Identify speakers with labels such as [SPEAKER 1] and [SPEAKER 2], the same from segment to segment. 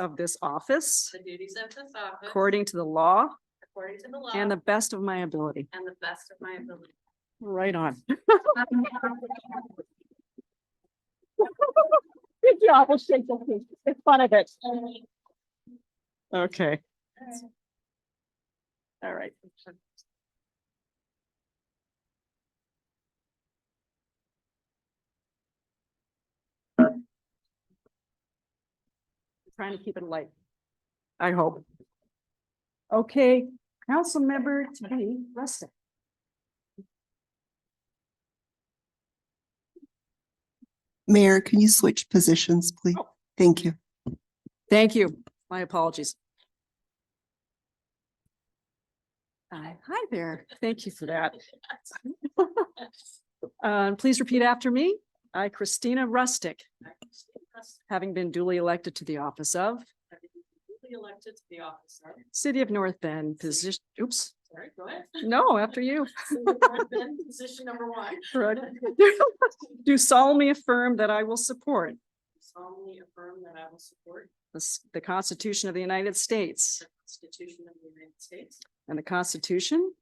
[SPEAKER 1] of this office
[SPEAKER 2] the duties of this office
[SPEAKER 1] according to the law
[SPEAKER 2] according to the law
[SPEAKER 1] and the Mhm. best of my ability.
[SPEAKER 2] and the best of my ability.
[SPEAKER 1] Right on. Good job. We'll shake the hand. Make fun of it. Okay, all right. Trying to keep it light. I hope. Okay, council member to be Rustic.
[SPEAKER 3] Mayor, can you switch positions, please?
[SPEAKER 1] Oh.
[SPEAKER 3] Thank you.
[SPEAKER 1] Thank you. My apologies. Hi Uh, hi there. Thank you for that. Uh, Please repeat after me. I, Christina Rustic, having been duly elected to the office of
[SPEAKER 2] Duly Elected to the office of,
[SPEAKER 1] City of North Bend, position, oops,
[SPEAKER 2] sorry, go ahead.
[SPEAKER 1] no, after you.
[SPEAKER 2] Position number one.
[SPEAKER 1] Right. Do solemnly affirm that I will support
[SPEAKER 2] solemnly affirm that I will support
[SPEAKER 1] the s- the Constitution of the United States
[SPEAKER 2] the Constitution of the United States.
[SPEAKER 1] and the Constitution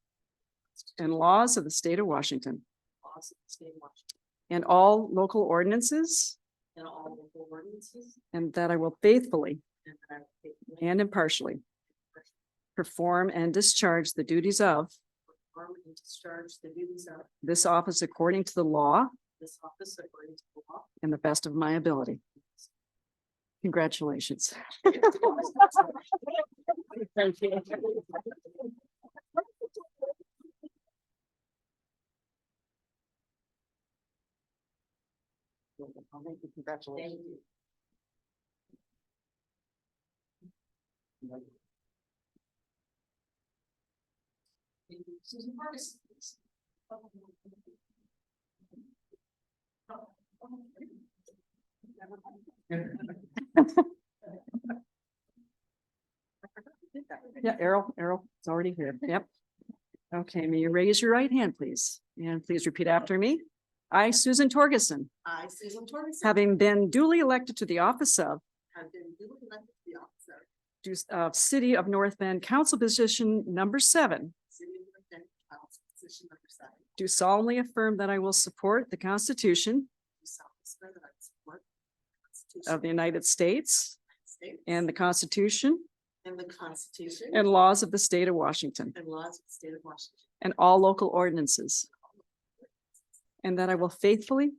[SPEAKER 1] and laws of the state of Washington
[SPEAKER 2] laws of the state of Washington,
[SPEAKER 1] and all local ordinances
[SPEAKER 2] And all local ordinances.
[SPEAKER 1] And that I will faithfully
[SPEAKER 2] And that I will faithfully
[SPEAKER 1] and impartially perform and discharge the duties of
[SPEAKER 2] perform and discharge the duties of
[SPEAKER 1] this office according to the law
[SPEAKER 2] this office according to the law.
[SPEAKER 1] and the best of my ability. Congratulations.
[SPEAKER 2] Thank you. Susan Marcus.
[SPEAKER 1] Yeah, Errol, Errol, it's already here. Yep. Okay, may you raise your right hand, please, and please repeat after me. I, Susan Torgerson,
[SPEAKER 2] I, Susan Torres.
[SPEAKER 1] having been duly elected to the office of
[SPEAKER 2] Have been duly elected to the office of
[SPEAKER 1] do- of City of North Bend Council Position Number Seven,
[SPEAKER 2] City of North Bend, Council position number seven.
[SPEAKER 1] do solemnly affirm that I will support the Constitution
[SPEAKER 2] Do solemnly swear that I will support the Constitution
[SPEAKER 1] of the United States
[SPEAKER 2] States
[SPEAKER 1] and the Constitution
[SPEAKER 2] And the Constitution.
[SPEAKER 1] and laws of the state of Washington
[SPEAKER 2] and laws of the state of Washington.
[SPEAKER 1] and all local ordinances, and that I will faithfully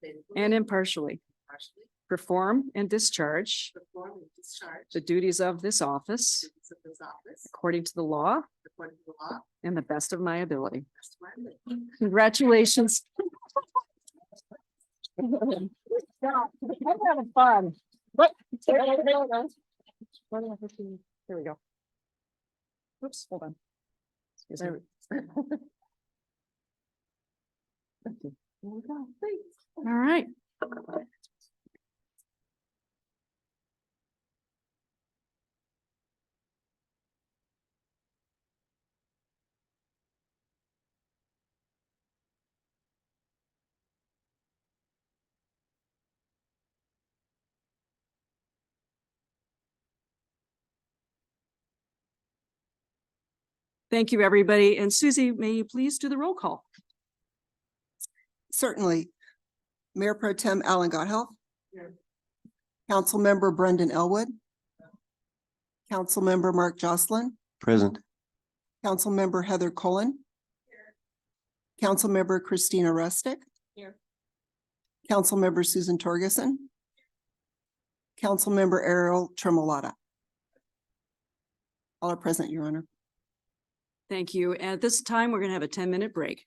[SPEAKER 2] Faithfully
[SPEAKER 1] and impartially
[SPEAKER 2] impartially
[SPEAKER 1] perform and discharge
[SPEAKER 2] Perform and discharge.
[SPEAKER 1] the duties of this office
[SPEAKER 2] duties Of this office.
[SPEAKER 1] according to the law
[SPEAKER 2] According to the law. to
[SPEAKER 1] and the best of my ability.
[SPEAKER 2] the best of my ability.
[SPEAKER 1] Congratulations. I'm having fun. What? Here we go. Oops, hold on. Excuse me. Thank you. Here we go. Thanks. All right. Thank you, everybody. And Susie, may you please do the roll call?
[SPEAKER 3] Certainly. Mayor Pro Tem Alan Council
[SPEAKER 2] Here.
[SPEAKER 3] Councilmember Brendan Elwood. Councilmember Mark Jocelyn.
[SPEAKER 4] Present.
[SPEAKER 3] Councilmember Heather Cullen. Councilmember Christina Rustic.
[SPEAKER 2] Here.
[SPEAKER 3] Councilmember Susan Torgerson. Councilmember Errol Tremolata. All are present, Your Honor.
[SPEAKER 1] Thank you. At this time, we're going to have a ten-minute break.